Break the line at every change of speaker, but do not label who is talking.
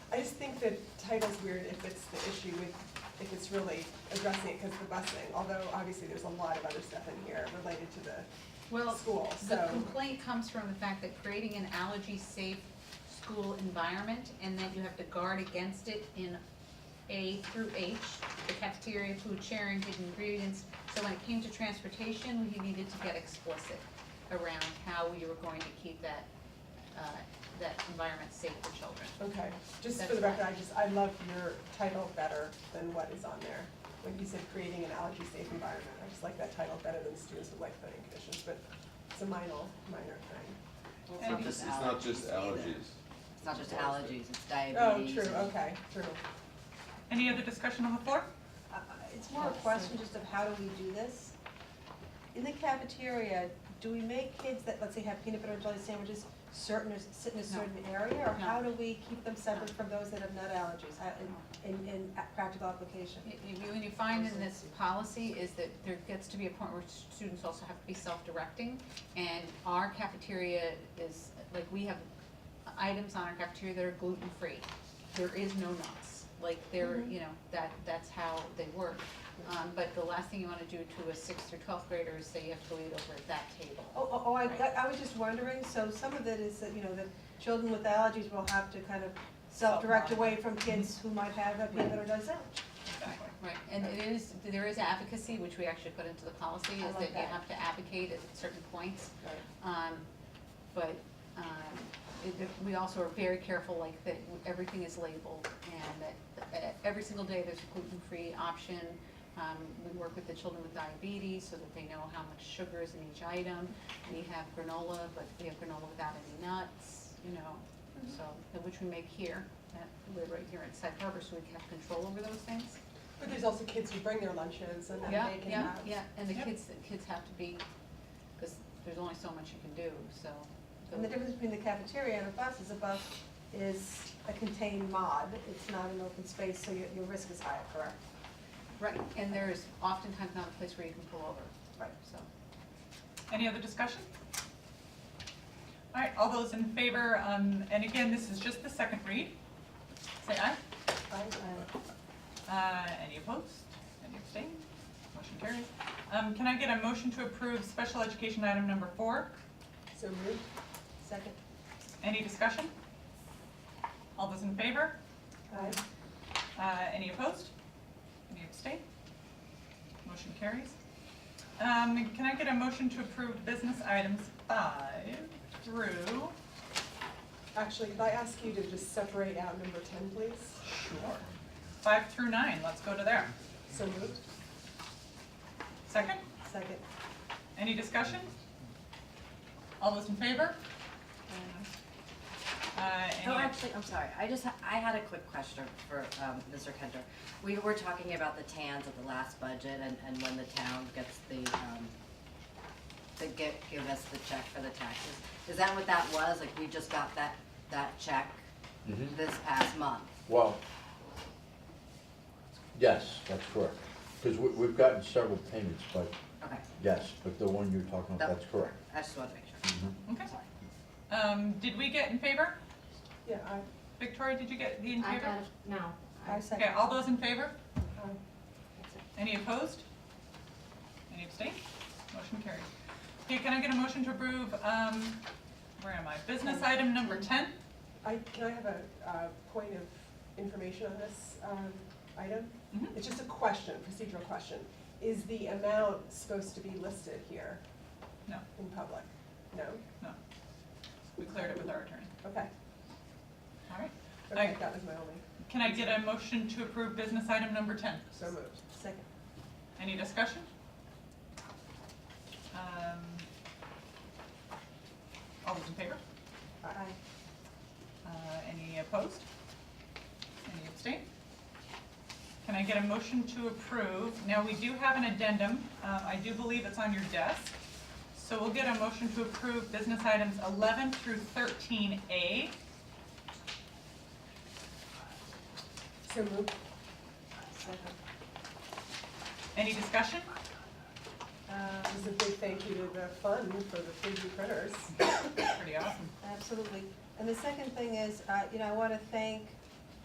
the title's weird if it's the issue with, if it's really addressing it because of the busing, although obviously there's a lot of other stuff in here related to the
Well,
school,
the
so.
complaint comes from the fact that creating an allergy-safe school environment and that you have to guard against it in A through H, the cafeteria, food sharing, hidden ingredients. So when it came to transportation, we needed to get explicit around how we were going to keep that, uh, that environment safe for children.
Okay, just for
That's
the record,
fine.
I just, I love your title better than what is on there. When you said creating an allergy-safe environment, I just like that title better than students with life planning conditions, but it's a minor, minor thing.
Well,
It's not
maybe
just, it's not just
either.
allergies.
It's not just
Well, it's-
allergies, it's
Oh,
diabetes.
true, okay, true.
Any other discussion on the floor?
Uh, It's more a question just of how do we do this? In the cafeteria, do we make kids that, let's say, have peanut butter and jelly sandwiches certain, sit in a
No.
certain area? Or
No.
how do we keep them separate from those that have nut allergies How- in, in, in a- practical application?
You- you- What you find in this policy is that there gets to be a point where students also have to be self-directing, and our cafeteria is, like, we have items on our cafeteria that are gluten-free. There is no nuts, like, there, you know, that, that's how they work. Um, but the last thing you wanna do to a sixth through twelfth grader is say you have to wait over at that table.
Oh, oh, oh, I,
Right.
I was just wondering, so some of it is that, you know, that children with allergies will have to kind of self-direct away from kids who might have a peanut butter and jelly sandwich.
Right, and it is, there is advocacy, which we actually put into the policy,
I
is
like
that you
that.
have to advocate at certain points. Um, but, um, it, it- we also are very careful, like, that everything is labeled, and that, uh, every single day there's a gluten-free option. Um, we work with the children with diabetes, so that they know how much sugar is in each item. We have granola, but we have granola without any nuts, you know,
Mm-hmm.
so, which we make here, at, we're right here at Sag Harbor, so we have control over those things.
But there's also kids who bring their lunches and then
Yeah,
they can
yeah,
have.
yeah, and the
Yep.
kids, the kids have to be, because there's only so much you can do, so.
And the difference between the cafeteria and a bus is a bus is a contained mod, it's not an open space, so your, your risk is higher, correct?
Right, and there's oftentimes not a place where you can pull over,
Right.
so.
Any other discussion? All right, all those in favor, um, and again, this is just the second read. Say aye. Uh, any opposed? Any abstained? Motion carries. Um, can I get a motion to approve special education item number four?
So moved.
Second?
Any discussion? All those in favor?
Aye.
Uh, any opposed? Any abstain? Motion carries. Um, can I get a motion to approve business items five through?
Actually, could I ask you to just separate out number ten, please?
Sure. Five through nine, let's go to there.
So moved.
Second,
Second.
any discussion? All those in favor? Uh,
Oh,
any,
Actually, I'm sorry, I just, ha- I had a quick question for um, Mr. Kenter. We were talking about the TANs at the last budget and, and when the town gets the, um, to give, give us the check for the taxes. Is that what that was? Like, we just got that, that check
Mhm.
this past month?
Well, yes, that's correct. Because we, we've gotten several payments, but
Okay,
yes, but the one you're talking about,
That-
that's correct.
I just wanted to make sure.
Mhm.
okay. Um, did we get in favor?
Yeah, I,
Victoria, did you get the in favor?
I got, no.
I
Okay,
second.
all those in favor?
I,
Any opposed? Any abstained? Motion carries. Okay, can I get a motion to approve, um, where am I? Business item number ten?
I, can I have a, uh point of information on this, um, item?
Mhm.
It's just a question, procedural question. Is the amount supposed to be listed here?
No.
In public? No?
No. We cleared it with our attorney.
Okay,
All right.
okay,
I-
that was my only,
Can I get a motion to approve business item number ten?
so moved.
Second.
Any discussion? Um, all those in favor?
Aye.
Uh, any opposed? Any abstain? Can I get a motion to approve? Now, we do have an addendum. Uh, I do believe it's on your desk. So we'll get a motion to approve business items 11 through 13A.
So moved.
Second.
Any discussion?
Um, Just a big thank you to the fund for the 3D printers.
Pretty awesome.
Absolutely. And the second thing is, uh, you know, I want to thank